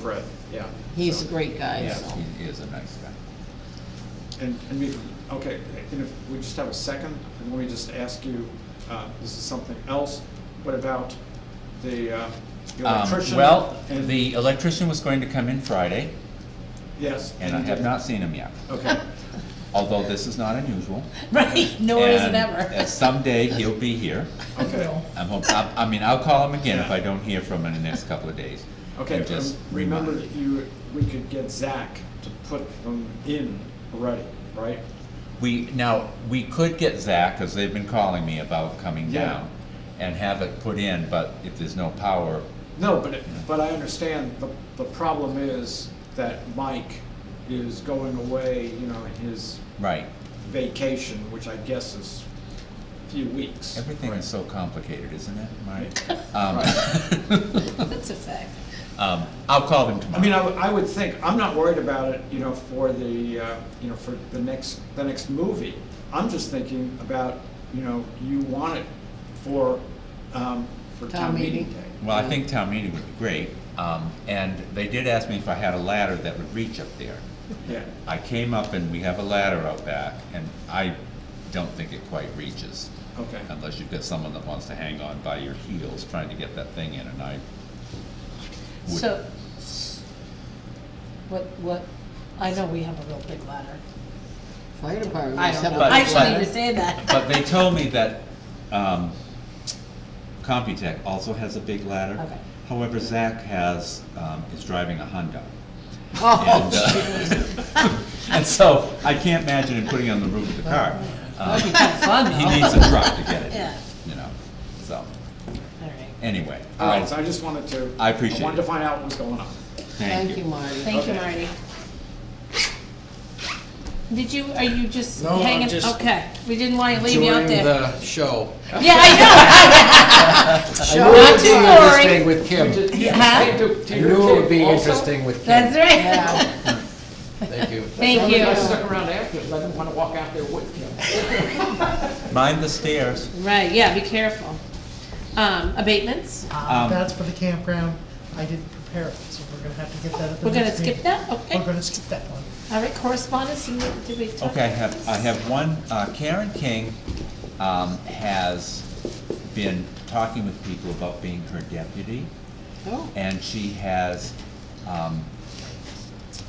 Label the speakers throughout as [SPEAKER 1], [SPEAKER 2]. [SPEAKER 1] Fred, yeah.
[SPEAKER 2] He's
[SPEAKER 1] So-
[SPEAKER 2] a great guy,
[SPEAKER 1] Yeah.
[SPEAKER 2] so.
[SPEAKER 3] He is a nice guy.
[SPEAKER 1] And, and we, okay, and if we just have a second, and let me just ask you, uh, this is something else, what about the uh, the
[SPEAKER 3] Um,
[SPEAKER 1] electrician?
[SPEAKER 3] Well,
[SPEAKER 1] and-
[SPEAKER 3] the electrician was going to come in Friday,
[SPEAKER 1] Yes.
[SPEAKER 3] and I
[SPEAKER 1] he
[SPEAKER 3] have
[SPEAKER 1] did.
[SPEAKER 3] not seen him yet,
[SPEAKER 1] Okay,
[SPEAKER 3] although this is not unusual.
[SPEAKER 2] Right, nor is it
[SPEAKER 3] And
[SPEAKER 2] ever.
[SPEAKER 3] at Someday he'll be here.
[SPEAKER 1] okay,
[SPEAKER 3] I'm hope, I, I mean, I'll call him again if I don't hear from him in the next couple of days.
[SPEAKER 1] okay.
[SPEAKER 3] And just
[SPEAKER 1] um, Remember
[SPEAKER 3] remind-
[SPEAKER 1] that you, we could get Zach to put them in already, right?
[SPEAKER 3] We, now, we could get Zach, because they've been calling me about coming
[SPEAKER 1] Yeah.
[SPEAKER 3] down, and have it put in, but if there's no power,
[SPEAKER 1] No, but, it- but I understand, the, the problem is that Mike is going away, you know, his
[SPEAKER 3] right.
[SPEAKER 1] vacation, which I guess is a few weeks.
[SPEAKER 3] Everything is so complicated, isn't it, Mike? Um,
[SPEAKER 2] That's a fact.
[SPEAKER 3] um, I'll call him tomorrow.
[SPEAKER 1] I mean, I, would- I would think, I'm not worried about it, you know, for the, uh, you know, for the next, the next movie. I'm just thinking about, you know, you want it for, um, for
[SPEAKER 2] Town
[SPEAKER 1] town meeting
[SPEAKER 2] meeting.
[SPEAKER 1] day.
[SPEAKER 3] Well, I think town meeting would be great, um, and they did ask me if I had a ladder that would reach up there.
[SPEAKER 1] Yeah,
[SPEAKER 3] I came up and we have a ladder out back, and I don't think it quite reaches,
[SPEAKER 1] okay,
[SPEAKER 3] unless you've got someone that wants to hang on by your heels trying to get that thing in, and I would.
[SPEAKER 2] So, s- what, what, I know we have a real big ladder.
[SPEAKER 4] Fire department.
[SPEAKER 2] I
[SPEAKER 4] must
[SPEAKER 2] don't
[SPEAKER 4] have
[SPEAKER 2] know,
[SPEAKER 4] a
[SPEAKER 3] But-
[SPEAKER 2] I actually
[SPEAKER 3] but-
[SPEAKER 2] need to say that.
[SPEAKER 3] But they told me that, um, Computech also has a big ladder.
[SPEAKER 2] Okay.
[SPEAKER 3] However, Zach has, um, is driving a Honda. And,
[SPEAKER 4] Oh,
[SPEAKER 3] uh, And so I can't imagine him putting it on the roof of the car.
[SPEAKER 2] That'd be
[SPEAKER 3] Um,
[SPEAKER 2] kind of fun,
[SPEAKER 3] He
[SPEAKER 2] though.
[SPEAKER 3] needs a truck to get it,
[SPEAKER 2] Yeah.
[SPEAKER 3] you know, so,
[SPEAKER 2] All right.
[SPEAKER 3] anyway.
[SPEAKER 2] Oh,
[SPEAKER 1] all right,
[SPEAKER 3] I'll-
[SPEAKER 1] so I just wanted to.
[SPEAKER 3] I appreciate
[SPEAKER 1] I wanted to
[SPEAKER 3] it.
[SPEAKER 1] find out what's going on.
[SPEAKER 3] Thank you.
[SPEAKER 4] Marty.
[SPEAKER 2] Thank you,
[SPEAKER 1] Okay.
[SPEAKER 2] Marty. Did you, are you just
[SPEAKER 5] No, I'm
[SPEAKER 2] hanging?
[SPEAKER 5] just
[SPEAKER 2] Okay, we didn't want to leave you out
[SPEAKER 5] During
[SPEAKER 2] there.
[SPEAKER 5] the show.
[SPEAKER 2] Yeah, I know. Not too
[SPEAKER 5] I
[SPEAKER 2] boring.
[SPEAKER 5] knew it would be interesting with Kim.
[SPEAKER 2] Yeah,
[SPEAKER 5] I knew it would be interesting with
[SPEAKER 2] That's
[SPEAKER 5] Kim.
[SPEAKER 2] right.
[SPEAKER 5] Thank you.
[SPEAKER 2] Thank
[SPEAKER 1] I
[SPEAKER 2] you.
[SPEAKER 1] stuck around after, 'cause I didn't want to walk out there with you.
[SPEAKER 3] Mind the stairs.
[SPEAKER 2] Right, yeah, be careful. Um, abatements?
[SPEAKER 3] Um,
[SPEAKER 6] Ah, That's for the campground. I didn't prepare it, so we're gonna have to get that at the
[SPEAKER 2] We're gonna
[SPEAKER 6] next meeting.
[SPEAKER 2] skip that? Okay.
[SPEAKER 6] We're gonna skip that one.
[SPEAKER 2] All right, correspondence, you- did we talk?
[SPEAKER 3] Okay, I have, I have one, uh, Karen King, um, has been talking with people about being her deputy,
[SPEAKER 2] Oh,
[SPEAKER 3] and she has, um,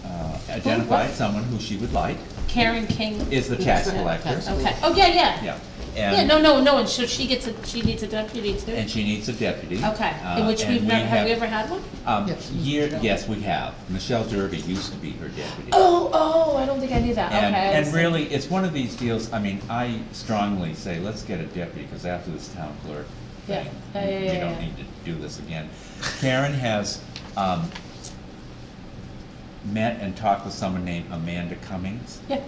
[SPEAKER 3] uh, identified someone who she would like,
[SPEAKER 2] Karen King.
[SPEAKER 3] is the tax
[SPEAKER 4] Yeah,
[SPEAKER 3] collector.
[SPEAKER 4] tax
[SPEAKER 2] Okay, oh, yeah, yeah.
[SPEAKER 3] Yeah.
[SPEAKER 2] Yeah,
[SPEAKER 3] And,
[SPEAKER 2] no, no, no, and so she gets a, she needs a deputy too?
[SPEAKER 3] and she needs a deputy.
[SPEAKER 2] Okay, in
[SPEAKER 3] Uh,
[SPEAKER 2] which
[SPEAKER 3] and
[SPEAKER 2] we've
[SPEAKER 3] we
[SPEAKER 2] never, have we ever had one?
[SPEAKER 3] Um,
[SPEAKER 6] Yes.
[SPEAKER 3] year, yes, we have. Michelle Derby used to be her deputy.
[SPEAKER 2] Oh, oh, I don't think I knew that, okay.
[SPEAKER 3] And,
[SPEAKER 2] I
[SPEAKER 3] and
[SPEAKER 2] see.
[SPEAKER 3] really, it's one of these deals, I mean, I strongly say, let's get a deputy, because after this town clerk
[SPEAKER 2] Yeah.
[SPEAKER 3] thing,
[SPEAKER 2] Yeah, yeah,
[SPEAKER 3] we
[SPEAKER 2] yeah,
[SPEAKER 3] don't
[SPEAKER 2] yeah.
[SPEAKER 3] need to do this again. Karen has, um, met and talked with someone named Amanda Cummings.
[SPEAKER 2] Yeah,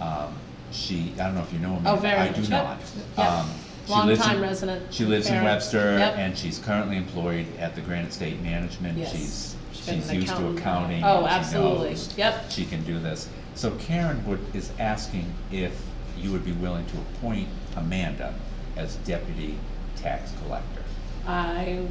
[SPEAKER 3] Um, she, I don't know if you know Amanda.
[SPEAKER 2] Oh, very
[SPEAKER 3] I do
[SPEAKER 2] much, yeah.
[SPEAKER 3] not.
[SPEAKER 2] Yeah.
[SPEAKER 3] Um, she
[SPEAKER 2] Long
[SPEAKER 3] lives in-
[SPEAKER 2] time resident,
[SPEAKER 3] She lives in
[SPEAKER 2] Karen.
[SPEAKER 3] Webster,
[SPEAKER 2] Yep.
[SPEAKER 3] and she's currently employed at the Granite State Management.
[SPEAKER 2] Yes.
[SPEAKER 3] She's,
[SPEAKER 2] She's been
[SPEAKER 3] she's
[SPEAKER 2] an
[SPEAKER 3] used to
[SPEAKER 2] accountant.
[SPEAKER 3] accounting.
[SPEAKER 2] Oh,
[SPEAKER 3] and she
[SPEAKER 2] absolutely.
[SPEAKER 3] knows
[SPEAKER 2] Yep.
[SPEAKER 3] She can do this. So Karen would, is asking if you would be willing to appoint Amanda as deputy tax collector.
[SPEAKER 2] I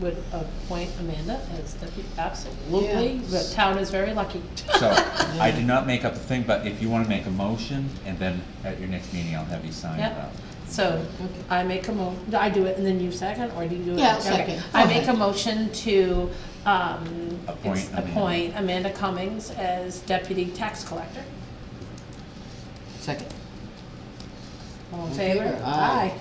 [SPEAKER 2] would appoint Amanda as deputy, absolutely,
[SPEAKER 4] Yeah.
[SPEAKER 2] the town is very lucky.
[SPEAKER 3] So, I did not make up the thing, but if you wanna make a motion, and then at your next meeting, I'll have you sign it
[SPEAKER 2] Yep.
[SPEAKER 3] up.
[SPEAKER 2] So I make a mo, do I do it and then you second, or do you do it?
[SPEAKER 4] Yeah, I'll
[SPEAKER 2] Okay.
[SPEAKER 4] second.
[SPEAKER 2] I make a motion to, um,
[SPEAKER 3] Appoint
[SPEAKER 2] ex-
[SPEAKER 3] Amanda.
[SPEAKER 2] appoint Amanda Cummings as deputy tax collector.
[SPEAKER 4] Second.
[SPEAKER 2] All in
[SPEAKER 4] In
[SPEAKER 2] favor?
[SPEAKER 4] favor, aye.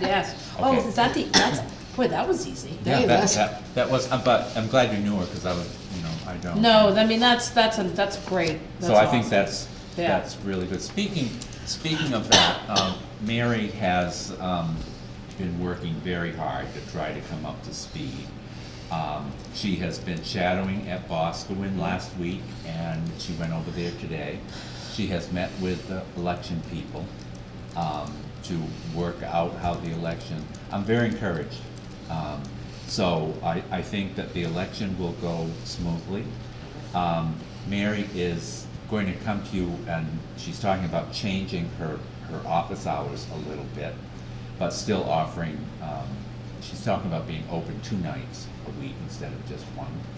[SPEAKER 2] Yes. Oh,
[SPEAKER 3] Okay.
[SPEAKER 2] is that the, that's, boy, that was easy.
[SPEAKER 3] Yeah,
[SPEAKER 4] Hey,
[SPEAKER 3] that,
[SPEAKER 4] that's-
[SPEAKER 3] that, that was, uh, but I'm glad you knew her, cause I was, you know, I don't.
[SPEAKER 2] No, I mean, that's, that's, a- that's great.
[SPEAKER 3] So I think
[SPEAKER 2] awesome.
[SPEAKER 3] that's,
[SPEAKER 2] Yeah.
[SPEAKER 3] that's really good. Speaking, speaking of that, um, Mary has, um, been working very hard to try to come up to speed. Um, she has been shadowing at Boscawen last week, and she went over there today. She has met with the election people, um, to work out how the election, I'm very encouraged. Um, so I, I think that the election will go smoothly. Um, Mary is going to come to you and she's talking about changing her, her office hours a little bit, but still offering, um, she's talking about being open two nights a week instead of just one.